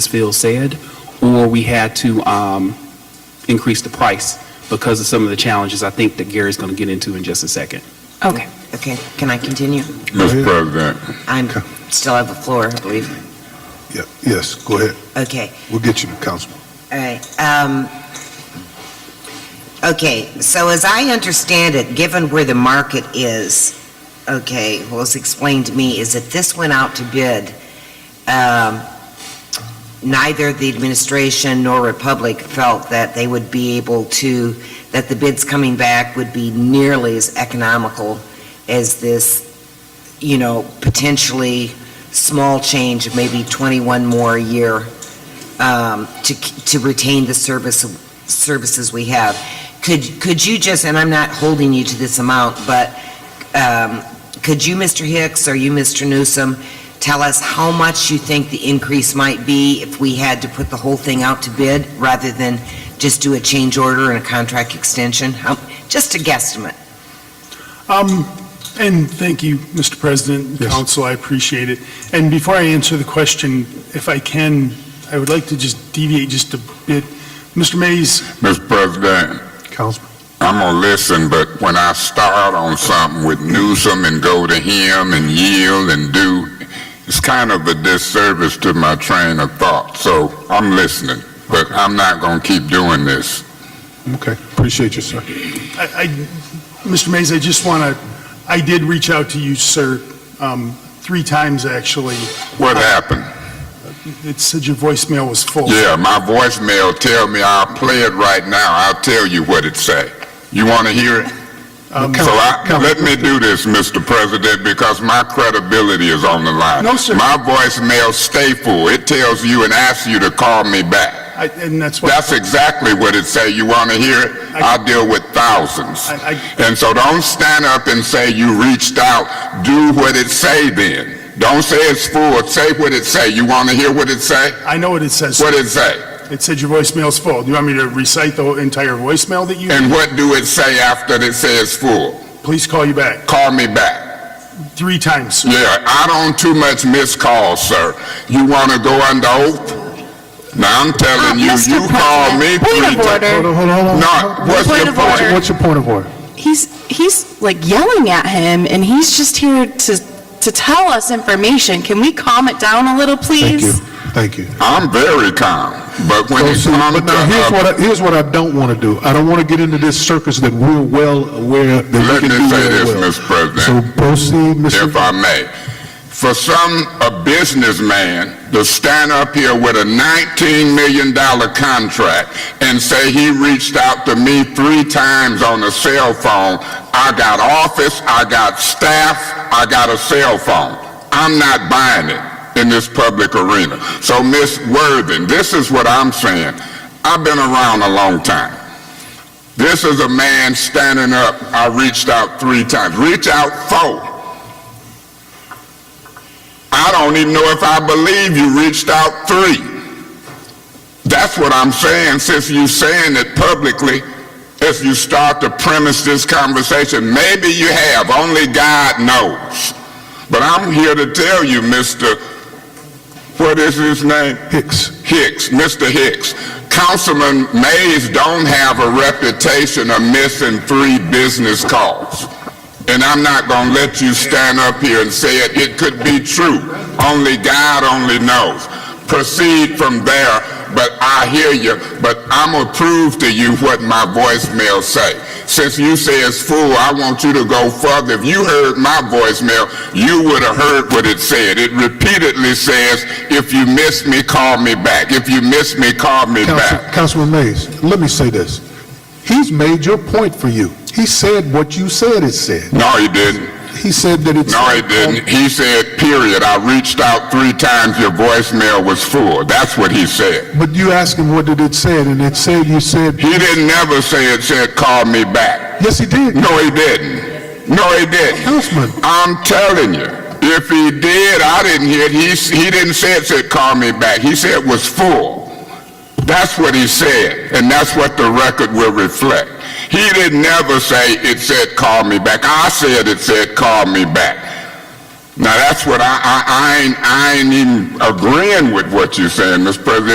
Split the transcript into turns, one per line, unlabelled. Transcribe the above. as Phil said, or we had to um, increase the price because of some of the challenges I think that Gary's going to get into in just a second.
Okay.
Okay, can I continue?
Mr. President,
I'm, still have the floor, I believe.
Yeah, yes, go ahead.
Okay,
We'll get you, Councilman.
all right. Um, okay, so as I understand it, given where the market is, okay, what was explained to me is if this went out to bid, um, neither the administration nor Republic felt that they would be able to, that the bids coming back would be nearly as economical as this, you know, potentially small change, of maybe 21 more a year, um, to to retain the service, services we have. Could, could you just, and I'm not holding you to this amount, but um, could you, Mr. Hicks, or you, Mr. Newsom, tell us how much you think the increase might be if we had to put the whole thing out to bid rather than just do a change order and a contract extension? How- Just a guesstimate.
Um, And thank you, Mr. President,
Yes.
Council, I appreciate it. And before I answer the question, if I can, I would like to just deviate just a bit. Mr. Mays,
Mr. President,
Councilman,
I'm gonna listen, but when I start on something with Newsom and go to him and yield and do, it's kind of a disservice to my train of thought, so I'm listening, but I'm not gonna keep doing this.
okay, appreciate you, sir.
I, I- Mr. Mays, I just want to, I did reach out to you, sir, um, three times, actually.
What happened?
It said your voicemail was full.
Yeah, my voicemail tell me I'll play it right now. I'll tell you what it say. You wanna hear it?
Um,
So I, let me do this, Mr. President, because my credibility is on the line.
No, sir.
My voicemail stay full. It tells you and asks you to call me back.
I- And that's why,
That's exactly what it say. You want to hear it?
I-
I deal with thousands.
I-
And so don't stand up and say you reached out. Do what it say then. Don't say it's full. Say what it say. You want to hear what it say?
I know what it says.
What it say?
It said your voicemail's full. Do you want me to recite the entire voicemail that you,
And what do it say after it says full?
please call you back?
Call me back.
Three times, sir.
Yeah, I don't too much miss calls, sir. You want to go under oath? Now, I'm telling you,
Mr.
you called me
Um, President,
three
point of
times.
order.
on, hold on,
No, what's
Point
the
of order.
point?
What's your point of order?
He's, he's like yelling at him, and he's just here to, to tell us information. Can we calm it down a little,
Thank you,
please?
thank you.
I'm very calm, but when
So,
it
see,
comes
But now, here's
to,
what, I- here's what I don't want to do. I don't want to get into this circus that we're well aware, that
let
we
me
can do
say
very
this,
well.
Mr. President.
So proceed,
if
Mr.
I may. For some, a businessman to stand up here with a $19 million contract and say he reached out to me three times on a cell phone, I got office, I got staff, I got a cell phone. I'm not buying it in this public arena. So, Ms. Worthing, this is what I'm saying. I've been around a long time. This is a man standing up. I reached out three times. Reach out four. I don't even know if I believe you reached out three. That's what I'm saying, since you saying it publicly, if you start to premise this conversation, maybe you have, only God knows. But I'm here to tell you, Mr., what is his name?
Hicks.
Hicks, Mr. Hicks, Councilman Mays don't have a reputation of missing three business calls. And I'm not gonna let you stand up here and say it, it could be true. Only God only knows. Proceed from there, but I hear you, but I'm gonna prove to you what my voicemail say. Since you say it's full, I want you to go further. If you heard my voicemail, you would have heard what it said. It repeatedly says, if you miss me, call me back. If you miss me, call me
Council-
back.
Councilman Mays, let me say this. He's made your point for you. He said what you said it said.
No, he didn't.
He said that it's...
No, he didn't. He said, period. I reached out three times. Your voicemail was full. That's what he said.
But you asked him what did it said, and it said, you said,
He didn't never say it said, call me back.
yes, he did.
No, he didn't. No, he didn't.
Councilman,
I'm telling you, if he did, I didn't hear it. He, s- he didn't say it said, call me back. He said it was full. That's what he said, and that's what the record will reflect. He didn't never say it said, call me back. I said it said, call me back. Now, that's what I, I, I ain't, I ain't even agreeing with what you're saying, Mr. President.